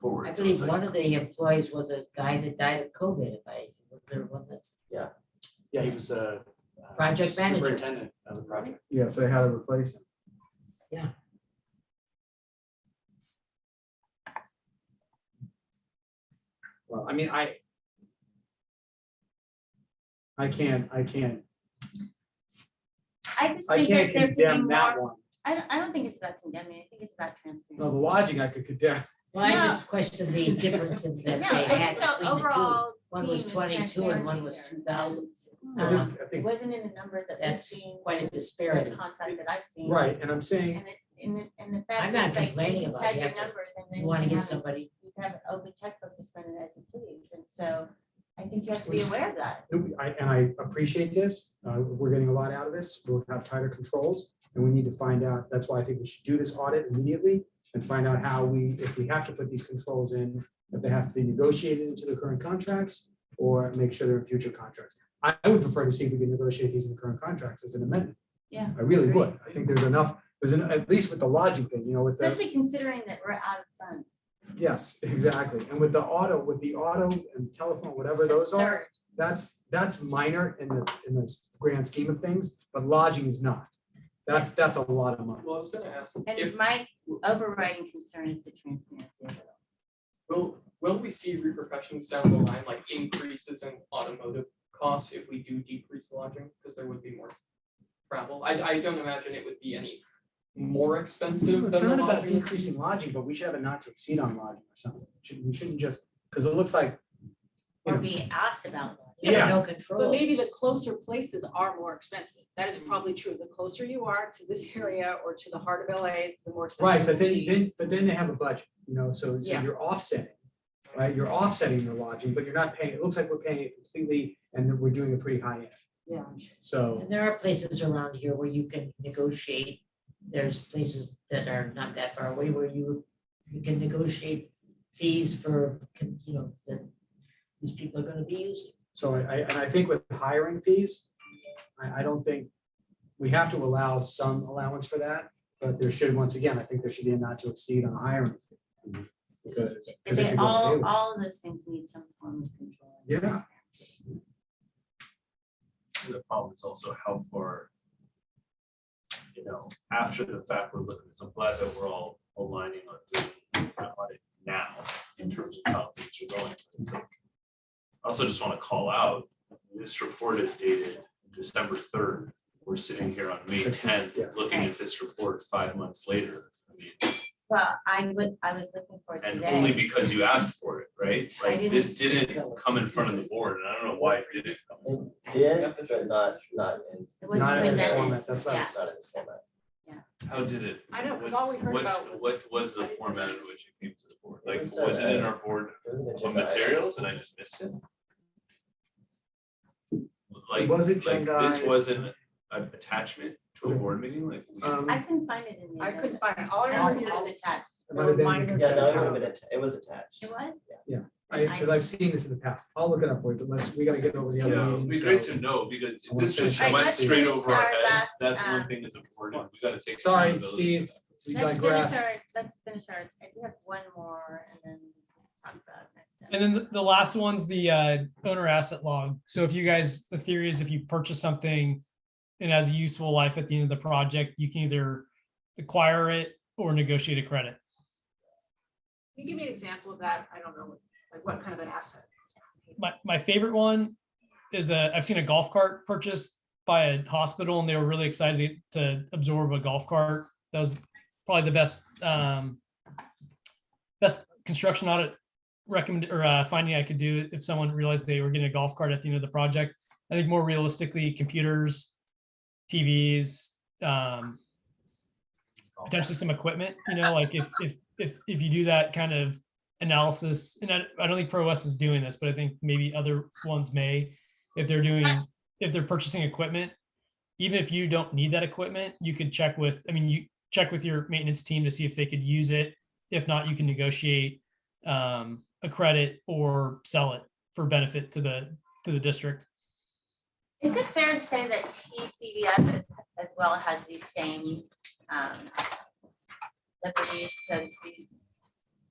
forward. I so believe it's like- one of the employees was a guy that died of COVID, if I, was there one that, Yeah, he was a. uh, Project manager. Superintendent of the project. Yes, they had to replace him. Well, I mean, I. I can't, I can't, I just I think can't that there could be condemn that more, one. I don't, I don't think it's about condemning, I think it's about No, transparency. the lodging I could condemn. well, I No. just questioned the differences that No, they I had think the between the two. overall One was theme is 22 and one transparency was there. 2000. And, I um, think- I It think, wasn't in the numbers that we've That's seen, Quite a the disparity. contract that I've seen. right, and I'm saying, And it, and it, and the I'm fact not is like, complaining you about had it. your Yeah, numbers and then You want to get you have, a- somebody, you have an open checkbook to spend it as you please, and so I think you have to We be s- aware of that. I- and I appreciate this, uh, we're getting a lot out of this, we'll have tighter controls, and we need to find out, that's why I think we should do this audit immediately and find out how we, if we have to put these controls in, if they have to be negotiated into the current contracts, or make sure they're in future contracts. I I would prefer to see if we can negotiate these in the current contracts as an amendment. Yeah, I really agreed. would, I think there's enough, there's, an at least with the logic thing, you know, with the. Especially considering that we're out of funds. Yes, exactly. And with the auto, with the auto and telephone, whatever It's those are, absurd. that's, that's minor in the, in the grand scheme of things, but lodging is not. That's, that's a lot of money. Well, I was gonna ask, And my overriding concern is the transparency of it all. Will, will we see repercussions down the line, like increases in automotive costs if we do decrease lodging? Because there would be more travel. I, I don't imagine it would be any more expensive It's than the not about lodging. decreasing lodging, but we should have a not to exceed on lodging or something. Shouldn't- We shouldn't just, because it looks like, you Or know, being asked about it. you have yeah, no control. But maybe the closer places are more expensive. That is Mm-hmm. probably true. The closer you are to this area or to the heart of LA, the more expensive. right, but it will then, be. then, but then they have a budget, you know, so, so Yeah. you're offsetting. Right, you're offsetting your lodging, but you're not paying, it looks like we're paying it completely and we're doing a pretty high end, Yeah. so. And there are places around here where you can negotiate. There's places that are not that far away where you, you can negotiate fees for, con- you know, that these people are gonna be using. So I, I- and I think with hiring fees, I, I don't think, we have to allow some allowance for that, but there should, once again, I think there should be a not to exceed on hiring. fee. Because. But because it they could go all, away. all of those things need some form of control. and Yeah. transparency. The problem is also how far, you know, after the fact, we're looking, so I'm glad that we're all aligning on doing an audit now in terms of how things are going. It's like- I Also just want to call out, this report is dated December third. We're sitting here on May Six tenth, months, yeah. looking at this report five months later. I mean, Well, I would, I was looking for it And only today. because you asked for it, right? I Like, this didn't- didn't come in front of the board, and I don't know why it didn't. come. Did, but not, not in, It was Not in this presented. format, that's what I yeah. was- not in this format. How did it? I know, because what- all we heard what- about was. What was the I didn't- format in which it came to the board? It Like, was, was it in uh, our board It was an of agenda item. materials and I just missed it? Like, Was it like this agendized? wasn't an attachment to a board meeting, like? we- Um, I couldn't find it in the. I agenda. couldn't find it. All I I remember don't here think it was was. attached. It might have been Reminder. because Yeah, no, it's it would have been, not- atta- it was attached. It was? I, because I've seen this in the past. I'll look it up for you, but let's, we gotta get over the other Yeah, it'd be great meeting. so- to know, because I if wanna this just finish- Alright, went let's straight finish over our our heads, last, that's uh, um, one thing that's important, we gotta take. Sorry, accountability. Steve, we Let's finish digress. our, let's finish our, I do have one more and then talk about it next. time. And then the- the last one's the uh, owner asset log. So if you guys, the theory is if you purchase something and has a useful life at the end of the project, you can either acquire it or negotiate a credit. Can you give me an example of that? I don't know, like what kind of an asset? My, my favorite one is a, I've seen a golf cart purchased by a hospital and they were really excited to absorb a golf cart. That was probably the best, um, best construction audit recommend or uh, finding I could do if someone realized they were getting a golf cart at the end of the project. I think more realistically, computers, TVs, um, potentially some equipment, you know, like if, if, if, if you do that kind of analysis, and I, I don't think Pro West is doing this, but I think maybe other ones may, if they're doing, if they're purchasing equipment, even if you don't need that equipment, you could check with, I mean, you check with your maintenance team to see if they could use it. If not, you can negotiate um, a credit or sell it for benefit to the, to the district. Is it fair to say that TCDF as, as well has these same, um, liberties, so to speak,